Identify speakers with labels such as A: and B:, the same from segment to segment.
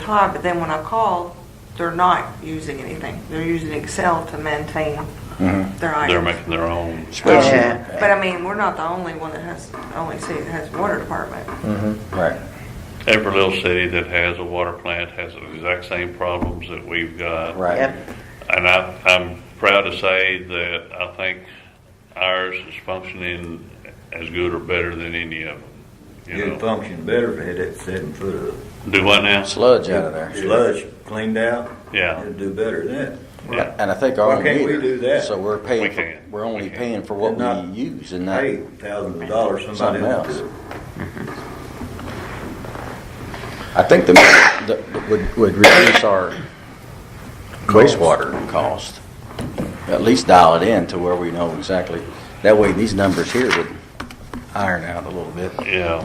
A: o'clock, but then when I called, they're not using anything. They're using Excel to maintain their
B: Mm-hmm. They're
A: items.
B: making their own spreadsheet.
C: Yeah.
A: But I mean, we're not the only one that has, only city that has water department.
C: Right.
B: Every little city that has a water plant has the exact same problems that we've got.
C: Right.
D: Yep.
B: And I, I'm proud to say that I think ours is functioning as good or better than any of them. You
E: It'd
B: know,
E: function better if it had that seven foot of
B: do what now?
C: Sludge out of there.
E: sludge cleaned out.
B: Yeah.
E: It'd do better than
B: Yeah.
C: And I think our
E: Why can't we
C: meter,
E: do that?
C: So we're
B: We
C: paying, for-
B: can.
C: we're
B: We
C: only
B: can.
C: paying for what
E: Not
C: we use and
E: that.
C: not,
E: Hey, thousands of dollars, somebody
C: Something
E: else
C: else.
E: did it.
C: I think the, the, would, would reduce our wastewater cost. At least dial it in to where we know exactly. That way these numbers here would iron out a little bit.
B: Yeah.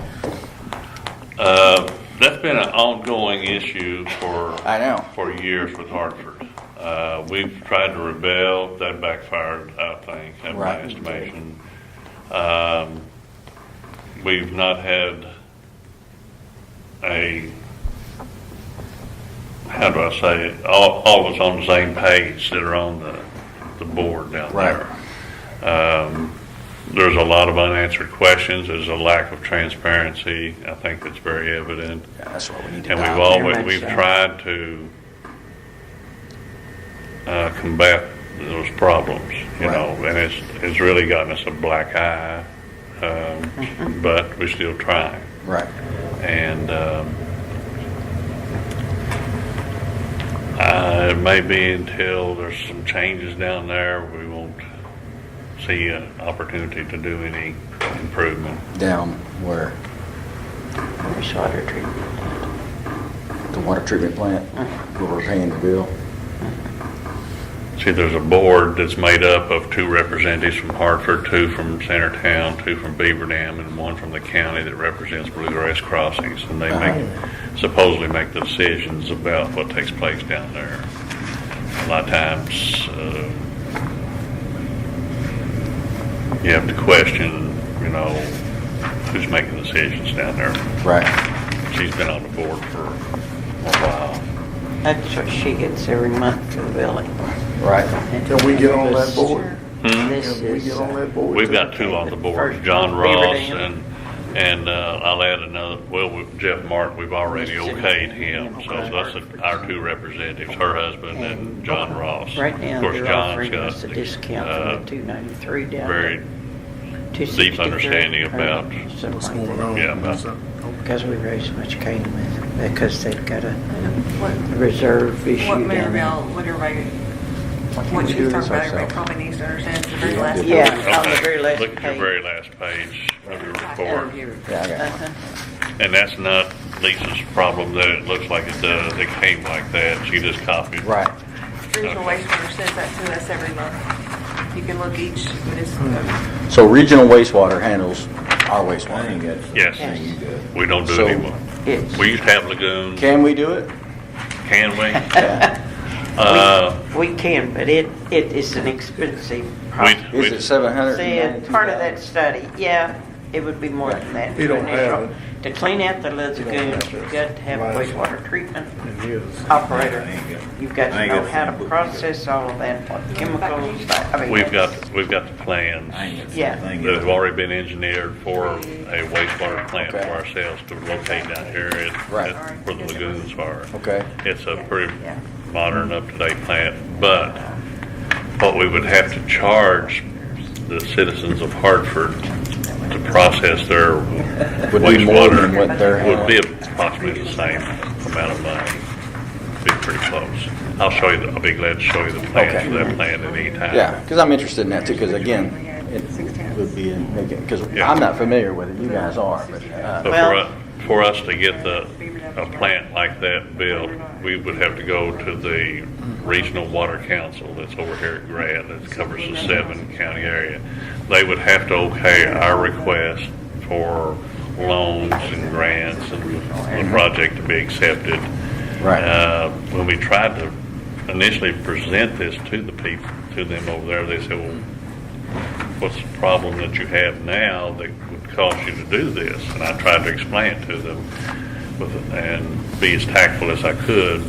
B: Uh, That's been an ongoing issue for.
C: I know.
B: For years with Hartford. Uh, We've tried to rebel, that backfired, I think, in my
C: Right.
B: estimation. Um, We've not had a, how do I say it, all, all of us on the same page that are on the, the board down
C: Right.
B: there. Um, There's a lot of unanswered questions, there's a lack of transparency, I think that's very evident.
C: Yeah, That's what we need to
B: And we've
C: dial in.
B: always,
D: much
B: we've
D: so.
B: tried to uh, combat those problems, you
C: Right.
B: know, and it's, it's really gotten us a black eye, um, but we're still trying.
C: Right.
B: And um, uh, it may be until there's some changes down there, we won't see an opportunity to do any improvement.
C: Down where
D: Wastewater treatment.
C: the water treatment plant, where we're paying the bill.
B: See, there's a board that's made up of two representatives from Hartford, two from Centertown, two from Beaver Dam, and one from the county that represents Bluegrass Crossings. And they make, supposedly make the decisions about what takes place down there. A lot of times, uh, you have to question, you know, who's making decisions down there.
C: Right.
B: She's been on the board for a while.
D: That's what she gets every month for the billing.
C: Right.
F: Can we get on that board?
B: Hmm?
D: This
F: Can we
D: is,
F: get on
D: uh,
F: that board?
B: We've got two on the board, John
D: Beaver
B: Ross and,
D: Dam.
B: and uh, I'll add another, well, we- Jeff Martin, we've already okayed him. So that's the- our two representatives, her husband and John Ross.
D: right now,
B: Of course,
D: they're
B: John's
D: offering
B: got
D: us a discount
B: uh,
D: from the two ninety-three down.
B: Very,
D: to
B: deep understanding about
F: What's going on?
B: Yeah, about-
D: Because we raised much cane with it, because they've got a
A: What,
D: reserve issue
A: what
D: down
A: Maryville,
D: there.
A: what everybody,
C: can't
A: what
C: we
A: you
C: do
A: talked
C: this
A: about, everybody
C: ourselves?
A: probably needs to understand it's the very last.
C: Yeah.
D: Yeah,
B: okay.
D: on the very last
B: Look at your
D: page.
B: very last page of your report.
C: Yeah, I got
D: Uh-huh.
B: And that's not Lisa's problem that it looks like it does. It came like that. She just copied.
C: one. Right.
A: Regional wastewater sends that to us every month. You can look each municipal.
C: So regional wastewater handles our
E: I ain't
C: wastewater.
E: got something
B: Yes.
E: you got.
B: We don't do
C: So-
B: it anymore.
D: It's-
B: We used to have lagoons.
C: Can we do it?
B: Can we? Uh,
D: We can, but it, it is an expensive project.
B: we,
C: Is
B: we,
C: it seven hundred?
D: Said, uh, part of that study, yeah, it would be more than that.
F: We don't have it.
D: To clean out the
F: We don't
D: lagoons,
F: have
D: you've
F: this.
D: got to have a
F: Right.
D: wastewater treatment
F: Oh, It is.
D: operator.
E: I ain't got-
D: You've got
E: I
D: to
E: ain't
D: know
E: got
D: how
E: some
D: to
E: book.
D: process all of that, what chemicals, I mean.
B: we've got, we've got the plans
E: I ain't got
D: Yeah.
E: something
B: that
E: you
B: have already been engineered for a wastewater plant for
C: Okay.
B: ourselves to locate down here at,
C: Right.
B: at where the lagoons are.
C: Okay.
B: It's a pretty
D: Yeah.
B: modern, up-to-date plant, but what we would have to charge the citizens of Hartford to process their
C: Would be more than
B: wastewater
C: what they're.
B: would be approximately the same amount of money. Be pretty close. I'll show you, the- I'll be glad to show you the plans
C: Okay.
B: for that plant at any time.
C: Yeah, because I'm interested in that too, because again, it would be, because
B: Yeah.
C: I'm not familiar with it, you guys are, but, uh,
B: But for
D: Well-
B: us, for us to get the, a plant like that built, we would have to go to the Regional Water Council that's over here at Grad, that covers the seven county area. They would have to okay our request for loans and grants and the project to be accepted.
C: right,
B: Uh, When we tried to initially present this to the people, to them over there, they said, well, what's the problem that you have now that would cause you to do this? And I tried to explain it to them. with- and be as tactful as I could